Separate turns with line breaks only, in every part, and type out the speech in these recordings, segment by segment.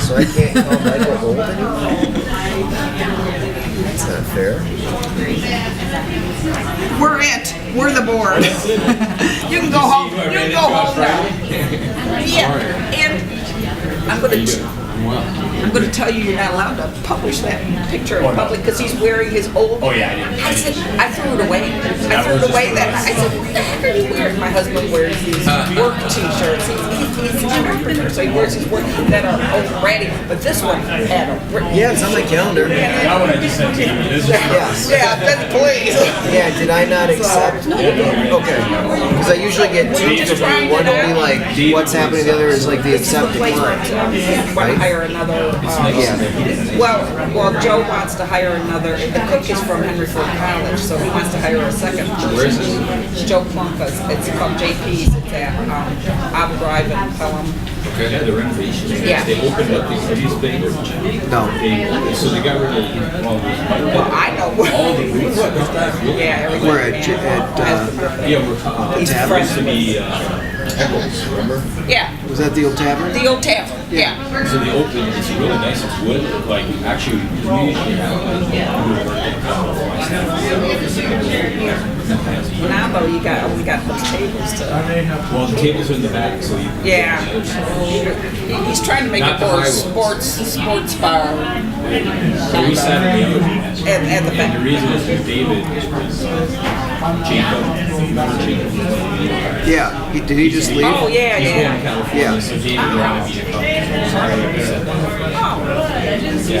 so I can't call Michael old anymore? That's not fair.
We're it. We're the board. you can go home. You can go home now. Yeah. And I'm gonna. T- I'm gonna tell you you're not allowed to publish that picture in public because he's wearing his old.
Oh, yeah, I did.
I said I threw it away. I
That
threw
was
it
just
away
a-
that night. I said, "What the heck are you wearing?" My husband wears these
Uh,
work T-shirts. He's, he's, he's an entrepreneur, so he wears his work that are already. But this one had a. re-
Yeah, it's on my calendar. Yeah,
That one I just sent to you. This is
yeah.
Yeah, then please.
did I not accept? Okay. Because I usually get two from you. One will be like, what's happening, the other is like the accepted
place where
one.
to
Right?
hire another. um,
Yeah.
Well, well, Joe wants to hire another, the cook is from Henry Ford College, so he wants to hire a second. Where is this? Joe Plunkus, it's called JP's, it's at, um, Abu Drive in Pelham.
Okay. Yeah, the renovations.
Yeah.
They opened up these, these things.
No.
They, so they got rid of, well, it
Well,
was
I know.
all the roots.
Yeah, everything.
We're at J- at, uh,
Yeah, we're talking.
It's
It used to be, uh,
Yeah,
Was that the old tavern?
the old tavern, yeah.
so the open, it's really nice, it's wood, like, actually, we usually have, like, wood work in town.
Now though, you got, we got those tables to,
Well, the tables are in the back, so you.
yeah. He- He's trying to make it
Not the
more
high ones.
sports, sports bar.
So we sat at the other end.
At- at the back.
And the reason is because David was uh, Jacob, remember Jacob?
Yeah. He, did he just leave?
Oh, yeah,
He's going to
yeah.
California,
Yeah.
so David wanted me to come. Sorry, I said that. Uh,
Oh,
Yeah.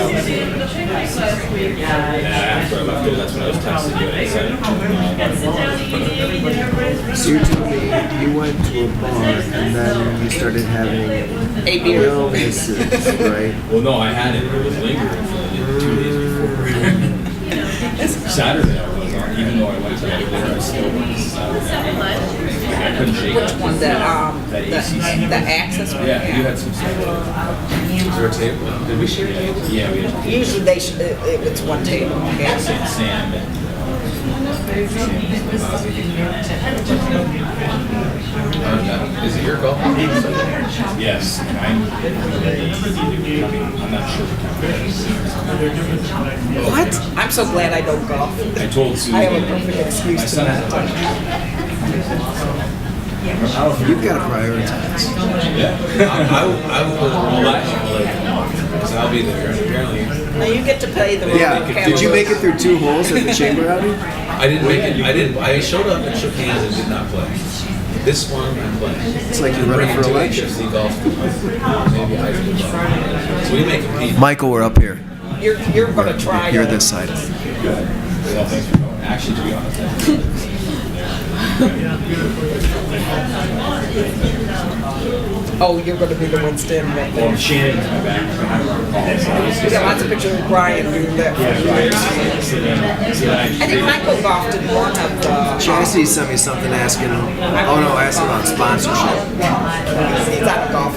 And after I left there, that's when I was texting you and I said, um,
So you told me you went to a bar and then you started having
a beer.
illnesses, right?
well, no, I had it. It was lingering for like two days before. Saturday, I was on, even though I went to that dinner, I still was. uh, I couldn't shake it.
One that, um, the, the access one,
Yeah, you
yeah.
had some stuff. Was there a table? Did we share a table? Yeah, we had a table.
Usually they, sh- it, it- it's one table, yeah.
Sam, Sam and. uh,
Is it your call?
Yes, and I'm, I'm not sure.
What? I'm so glad I don't golf.
I told Susan.
I have a perfect excuse
My
to
son
not.
has a bunch. I don't know if
You've got to prioritize.
Yeah.
I will, I will, well, because I'll be there, and apparently,
Now you get to play the role of
Yeah. Did you make it through two holes at the chamber outing?
I didn't make it, I didn't, I showed up and shook hands and did not play. This one, I played.
It's like you're running for election.
HFC golf, maybe high school golf. So we may compete.
Michael, we're up here.
You're, you're gonna try.
You're
it.
this side.
Well, thanks for going. Actually, to be honest. I didn't
Oh, you're gonna be the one standing back there.
Well, Shannon's my back.
We got lots of pictures of Brian doing that. I think Michael golfed in one of the,
Chastity sent me something asking, oh no, asking about sponsorship.
he's out of golf.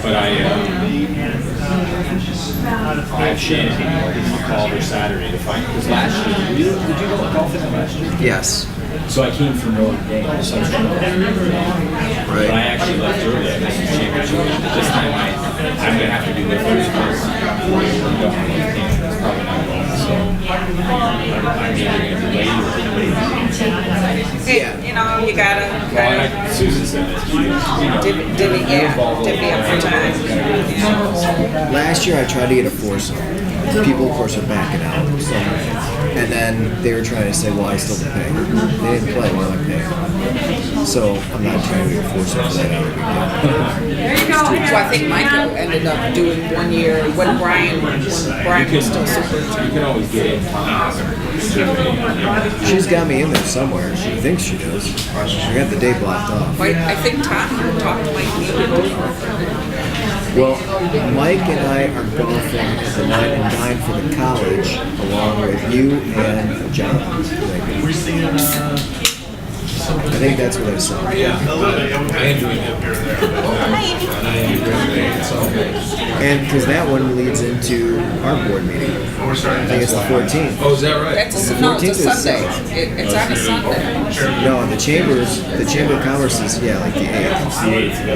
But I, um, I have Shannon, I'll call her Saturday to find, because last year, you- did you go golfing last year?
Yes.
So I came from Notre Dame, so I was from Notre Dame. But I
Right.
actually left early. I missed the championship. This time I, I'm gonna have to do the first course. It's probably not going. So I'm either gonna delay or
Hey, you know, you gotta,
Well,
gotta,
I, Susan said that. She, you know,
divvy, divvy, yeah, divvy up your time.
Last year I tried to get a foursome. People, of course, are backing out. So. And then they were trying to say, well, I still have to pay. They didn't play, well, I pay. So I'm not trying to get a foursome for that other weekend.
So I think Michael ended up doing one year when Brian, when Brian was still super.
you can always get in. Well,
She's got me in there somewhere. She thinks she does. I got the day blocked off.
Wait, I think Tom talked to Mike Neal.
Well, Mike and I are golfing at the nine and nine for the college, along with you and John. I think that's what I saw.
Yeah, I enjoyed it. And I enjoyed it, so.
And because that one leads into our board meeting. I think it's the 14th.
Oh, is that right?
That's a, no, it's a
14th is
Sunday.
Sunday.
It, it's on a Sunday.
No, the chambers, the chamber of commerce is yeah, like the 8th.